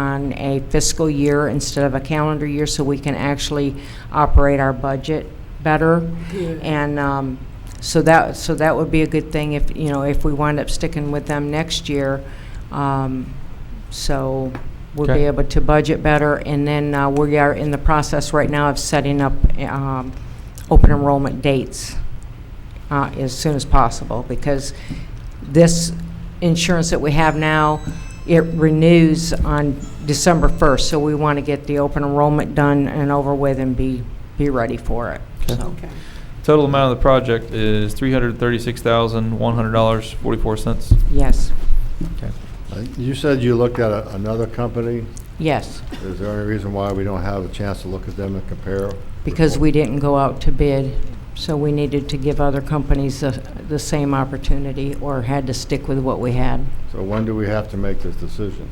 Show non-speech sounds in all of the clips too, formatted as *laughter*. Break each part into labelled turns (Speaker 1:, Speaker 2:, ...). Speaker 1: on a fiscal year instead of a calendar year, so we can actually operate our budget better. And um, so that, so that would be a good thing if, you know, if we wind up sticking with them next year. Um, So we'll be
Speaker 2: Okay.
Speaker 1: able to budget better. And then uh, we are in the process right now of setting up um, open enrollment dates uh, as soon as possible, because this insurance that we have now, it renews on December 1st, so we want to get the open enrollment done and over with and be, be ready for it,
Speaker 2: Okay.
Speaker 1: so.
Speaker 3: Okay.
Speaker 2: Total amount of the project is three hundred thirty-six thousand, one hundred dollars, forty-four cents.
Speaker 1: Yes,
Speaker 2: Okay.
Speaker 4: Uh, You said you looked at a- another company.
Speaker 1: yes,
Speaker 4: Is there any reason why we don't have a chance to look at them and compare?
Speaker 1: because we didn't go out to bid, so we needed to give other companies the, the same opportunity or had to stick with what we had.
Speaker 4: So when do we have to make this decision?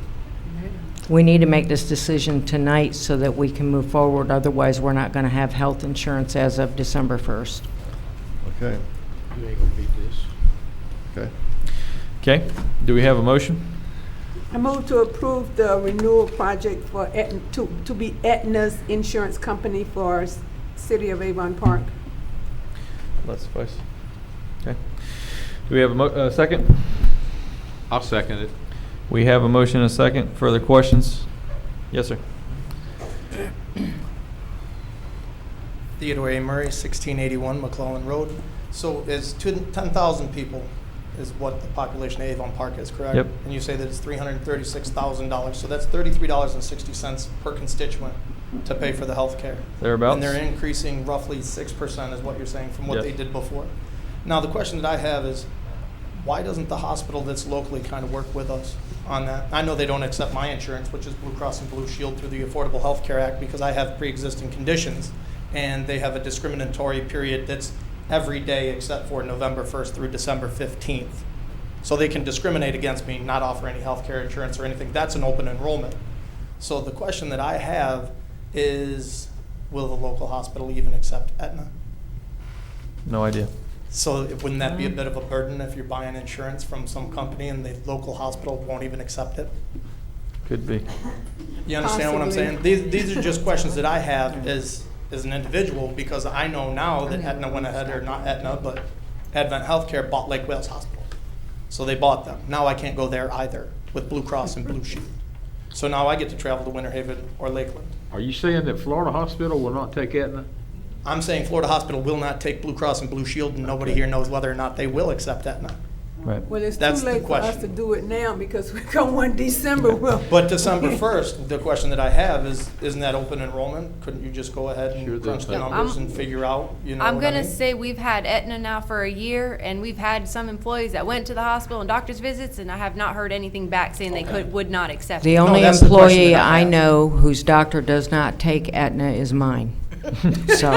Speaker 1: We need to make this decision tonight so that we can move forward, otherwise we're not going to have health insurance as of December 1st.
Speaker 4: Okay,
Speaker 5: You ain't gonna beat this.
Speaker 4: okay.
Speaker 2: Okay, do we have a motion?
Speaker 3: I move to approve the renewal project for, Aetna- to, to be Aetna's insurance company for s- City of Avon Park.
Speaker 2: Let's suffice. Okay. Do we have a mo, uh, second?
Speaker 5: I'll second it.
Speaker 2: We have a motion and a second. Further questions? Yes, sir.
Speaker 6: Theodore A. Murray, 1681 McClellan Road. So is two- 10,000 people is what the population of Avon Park is, correct?
Speaker 2: Yep.
Speaker 6: And you say that it's $336,000, so that's $33.60 per constituent to pay for the health care.
Speaker 2: Thereabouts.
Speaker 6: And they're increasing roughly 6% is what you're saying from what
Speaker 2: Yes.
Speaker 6: they did before. Now, the question that I have is, why doesn't the hospital that's locally kind of work with us on that? I know they don't accept my insurance, which is Blue Cross and Blue Shield through the Affordable Health Care Act, because I have pre-existing conditions, and they have a discriminatory period that's every day except for November 1st through December 15th. So they can discriminate against me, not offer any health care insurance or anything. That's an open enrollment. So the question that I have is, will the local hospital even accept Aetna?
Speaker 2: No idea.
Speaker 6: So it- wouldn't that be a bit of a burden if you're buying insurance from some company and the local hospital won't even accept it?
Speaker 2: Could be.
Speaker 6: You understand what I'm saying?
Speaker 3: Possibly.
Speaker 6: These, these are just questions that I have as, as an individual, because I know now that Aetna went ahead, or not Aetna, but Advent Healthcare bought Lake Wales Hospital. So they bought them. Now I can't go there either with Blue Cross and Blue Shield. So now I get to travel to Winter Haven or Lakeland.
Speaker 5: Are you saying that Florida Hospital will not take Aetna?
Speaker 6: I'm saying Florida Hospital will not take Blue Cross and Blue Shield, and nobody here knows whether or not they will accept Aetna.
Speaker 2: Right.
Speaker 3: Well, it's
Speaker 6: That's
Speaker 3: too
Speaker 6: the
Speaker 3: late for us
Speaker 6: question.
Speaker 3: to do it now because we *laughs* come one December. Well,
Speaker 6: But December first, the question that I have is, isn't that open enrollment? Couldn't you just go ahead
Speaker 5: Sure,
Speaker 6: and crunch
Speaker 5: that's-
Speaker 6: the
Speaker 7: Yeah,
Speaker 6: numbers
Speaker 7: I'm-
Speaker 6: and figure out, you know
Speaker 7: I'm
Speaker 6: what I
Speaker 7: gonna
Speaker 6: mean?
Speaker 7: say we've had Aetna now for a year, and we've had some employees that went to the hospital and doctor's visits, and I have not heard anything back saying they could, would not accept
Speaker 1: The
Speaker 7: it.
Speaker 1: only
Speaker 6: that's the question
Speaker 1: employee
Speaker 6: that I
Speaker 1: I
Speaker 6: have.
Speaker 1: know whose doctor does not take Aetna is
Speaker 6: *laughs*
Speaker 1: mine. So,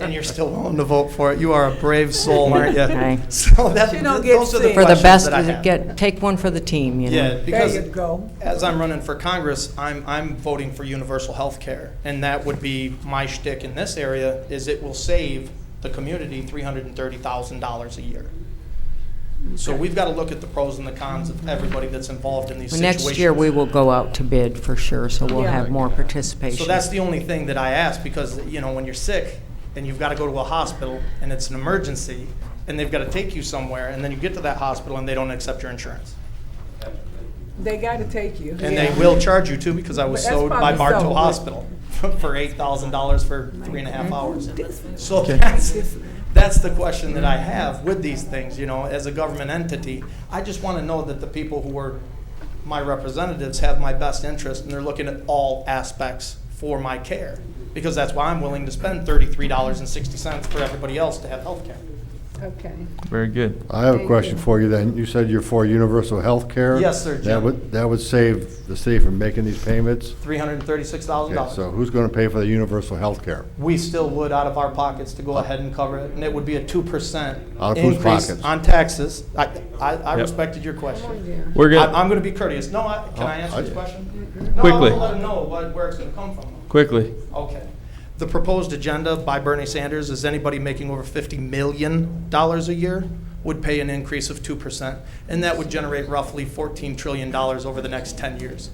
Speaker 6: And you're still willing to vote for it. You are a
Speaker 7: *laughs*
Speaker 6: brave soul, aren't
Speaker 1: Okay.
Speaker 6: you? *laughs* So that,
Speaker 3: She don't get
Speaker 6: those are the
Speaker 3: sick.
Speaker 1: for the
Speaker 6: questions
Speaker 1: best,
Speaker 6: that I have.
Speaker 1: get, take one for the team, you know?
Speaker 6: Yeah,
Speaker 3: There
Speaker 6: because
Speaker 3: you go.
Speaker 6: as I'm running for Congress, I'm, I'm voting for universal health care. And that would be my shtick in this area, is it will save the community three hundred and thirty thousand dollars a year. So we've got to look at the pros and the cons of everybody that's involved in these situations.
Speaker 1: Next year, we will go out to bid for sure, so we'll
Speaker 3: Yeah.
Speaker 1: have more participation.
Speaker 6: So that's the only thing that I ask, because, you know, when you're sick and you've got to go to a hospital and it's an emergency and they've got to take you somewhere and then you get to that hospital and they don't accept your insurance.
Speaker 3: They gotta take you.
Speaker 6: And
Speaker 3: yeah.
Speaker 6: they will charge you too, because I was
Speaker 3: But that's
Speaker 6: sold by
Speaker 3: probably
Speaker 6: Bartow
Speaker 3: so.
Speaker 6: Hospital for eight thousand dollars for three and a half hours.
Speaker 3: This-
Speaker 6: So that's, that's the question that I have with these things, you know, as a government entity. I just want to know that the people who are my representatives have my best interest and they're looking at all aspects for my care. Because that's why I'm willing to spend thirty-three dollars and sixty cents for everybody else to have health care.
Speaker 3: Okay.
Speaker 2: Very good.
Speaker 4: I have a
Speaker 3: Thank
Speaker 4: question
Speaker 3: you.
Speaker 4: for you then. You said you're for universal health care?
Speaker 6: Yes, sir,
Speaker 4: That
Speaker 6: Jim.
Speaker 4: would, that would save the city from making these payments?
Speaker 6: Three hundred and thirty-six thousand
Speaker 4: Okay,
Speaker 6: dollars.
Speaker 4: so who's going to pay for the universal health care?
Speaker 6: we still would out of our pockets to go ahead and cover it, and it would be a two percent
Speaker 4: Out of whose
Speaker 6: increase
Speaker 4: pockets?
Speaker 6: on taxes. I, I, I
Speaker 2: Yep.
Speaker 6: respected your question.
Speaker 3: Yeah.
Speaker 2: We're
Speaker 6: I'm,
Speaker 2: good.
Speaker 6: I'm gonna be courteous. No, I, can I answer
Speaker 4: I-
Speaker 6: this question?
Speaker 2: Quickly.
Speaker 6: No, I'll let them know what, where it's gonna come from.
Speaker 2: Quickly.
Speaker 6: Okay. The proposed agenda by Bernie Sanders is anybody making over fifty million dollars a year would pay an increase of two percent, and that would generate roughly fourteen trillion dollars over the next ten years.